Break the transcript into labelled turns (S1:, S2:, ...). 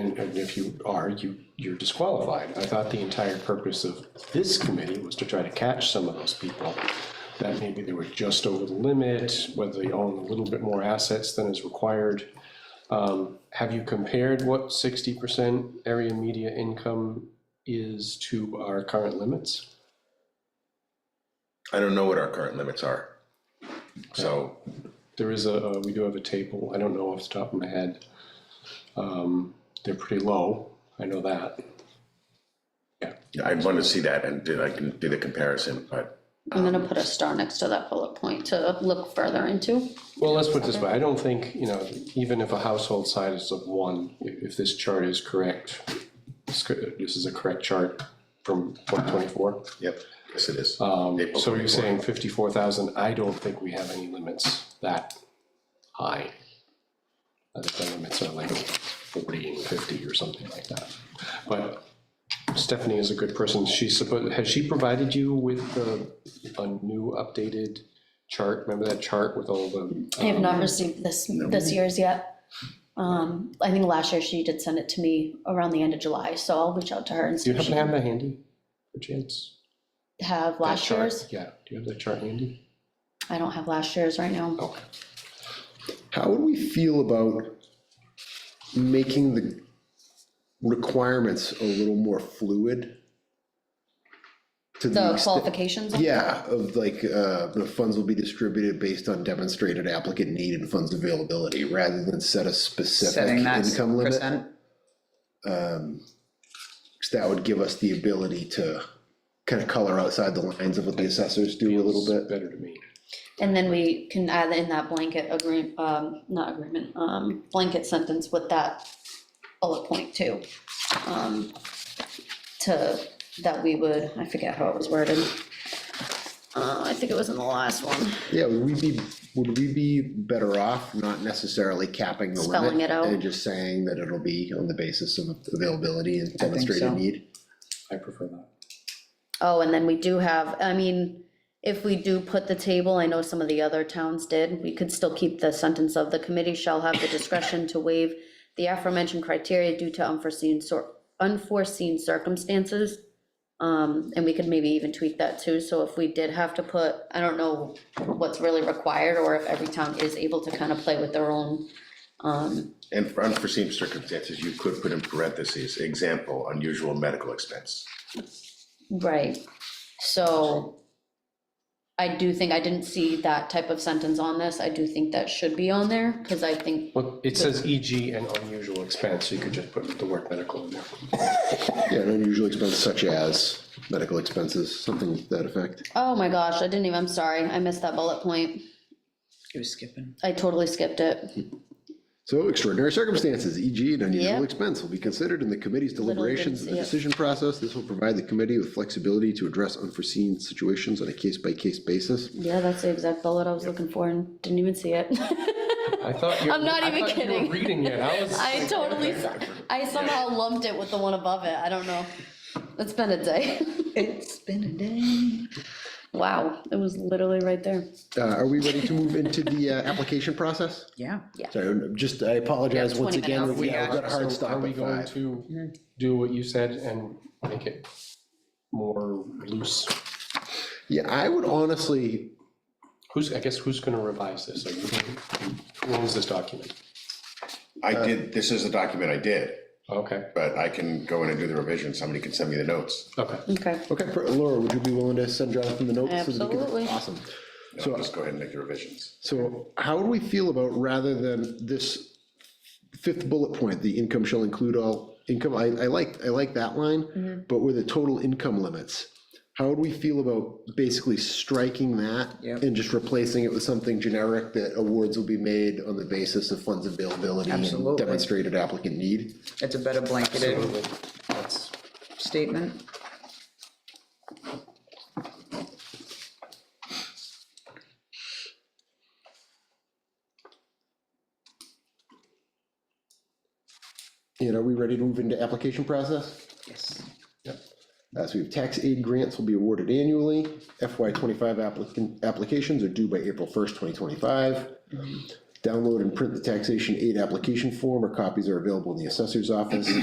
S1: and, and if you are, you, you're disqualified. I thought the entire purpose of this committee was to try to catch some of those people. That maybe they were just over the limit, whether they own a little bit more assets than is required. Um, have you compared what sixty percent area media income is to our current limits?
S2: I don't know what our current limits are. So,
S1: There is a, uh, we do have a table, I don't know off the top of my head. Um, they're pretty low, I know that.
S2: yeah, I'd want to see that and did, I can do the comparison, but
S3: I'm gonna put a star next to that bullet point to look further into.
S1: Well, let's put it this way, I don't think, you know, even if a household size of one, i- if this chart is correct, this co- this is a correct chart from twenty twenty-four.
S2: yep, yes, it is.
S1: Um,
S2: April
S1: so you're
S2: 24.
S1: saying fifty-four thousand, I don't think we have any limits that high. I think the limits are like forty and fifty or something like that. But Stephanie is a good person, she's supposed, has she provided you with the, a new updated chart? Remember that chart with all the?
S3: I have
S1: um,
S3: not received this, this year's yet. Um, I think last year she did send it to me around the end of July, so I'll reach out to her and
S1: Do
S3: see
S1: you
S3: if
S1: happen
S3: she
S1: to have
S3: can
S1: that handy, perchance?
S3: have
S1: That
S3: last
S1: chart?
S3: year's.
S1: Yeah, do you have that chart handy?
S3: I don't have last year's right now.
S1: Okay.
S4: How would we feel about making the requirements a little more fluid? To
S3: The
S4: extent-
S3: qualifications?
S4: Yeah, of like, uh, the funds will be distributed based on demonstrated applicant need and funds availability, rather than set a specific
S5: setting that
S4: income limit.
S5: percent.
S4: 'cause That would give us the ability to kind of color outside the lines of what the assessors do a little bit.
S1: Better to me.
S3: And then we can add in that blanket agreement, um, not agreement, um, blanket sentence with that bullet point too. Um, to, that we would, I forget how it was worded. Uh, I think it was in the last one.
S4: Yeah, would we be, would we be better off not necessarily capping the limit?
S3: Spelling it out.
S4: And just saying that it'll be on the basis of availability and
S5: I think
S4: demonstrated
S5: so.
S4: need?
S1: I prefer that.
S3: Oh, and then we do have, I mean, if we do put the table, I know some of the other towns did, we could still keep the sentence of the committee shall have the discretion to waive the aforementioned criteria due to unforeseen sor- unforeseen circumstances. Um, and we could maybe even tweak that too, so if we did have to put, I don't know what's really required, or if every town is able to kind of play with their own.
S2: And for unforeseen circumstances, you could put in parentheses, example, unusual medical expense.
S3: Right, so I do think, I didn't see that type of sentence on this, I do think that should be on there, because I think,
S1: Well, it says EG and unusual expense, so you could just put the word medical in there.
S4: Yeah, an unusual expense such as medical expenses, something to that effect.
S3: oh my gosh, I didn't even, I'm sorry, I missed that bullet point,
S5: It was skipping.
S3: I totally skipped it.
S4: So extraordinary circumstances, e.g. an
S3: Yeah.
S4: unusual expense will be considered in the committee's
S3: didn't
S4: deliberations and
S3: see
S4: the
S3: it.
S4: decision process. This will provide the committee with flexibility to address unforeseen situations on a case-by-case basis.
S3: Yeah, that's the exact bullet I was looking for and didn't even see it.
S1: I thought you.
S3: I'm not
S1: I
S3: even
S1: thought you were
S3: kidding.
S1: reading it, I was.
S3: I totally, I somehow lumped it with the one above it, I don't know, it's been a day,
S5: It's been a day.
S3: wow, it was literally right there.
S4: Uh, are we ready to move into the, uh, application process?
S5: Yeah.
S4: Sorry, just, I apologize
S3: We have
S4: once
S3: 20
S4: again.
S3: minutes.
S4: We have got a hard
S1: So
S4: stop
S1: are we
S4: at
S1: going
S4: five.
S1: to do what you said and make it more loose?
S4: Yeah, I would honestly,
S1: Who's, I guess, who's gonna revise this? Are you, who owns this document?
S2: I did, this is the document I did,
S1: Okay,
S2: but I can go in and do the revision, somebody can send me the notes.
S1: okay.
S3: Okay,
S4: okay, per- Laura, would you be willing to send Jonathan the notes? so that we can-
S3: Absolutely.
S4: Awesome.
S2: And I'll just go ahead and make the revisions.
S4: So how would we feel about, rather than this fifth bullet point, the income shall include all income, I, I like, I like that
S3: Mm-hmm.
S4: line, but with the total income limits, how would we feel about basically striking that?
S5: Yep.
S4: And just replacing it with something generic that awards will be made on the basis of funds availability and
S5: Absolutely.
S4: demonstrated applicant need?
S5: It's a better blanketed
S1: Absolutely. That's,
S5: statement.
S4: And are we ready to move into application process?
S5: Yes.
S4: Uh, So we have tax aid grants will be awarded annually. FY twenty-five applicant, applications are due by April first, twenty twenty-five. Download and print the taxation aid application form or copies are available in the assessor's office.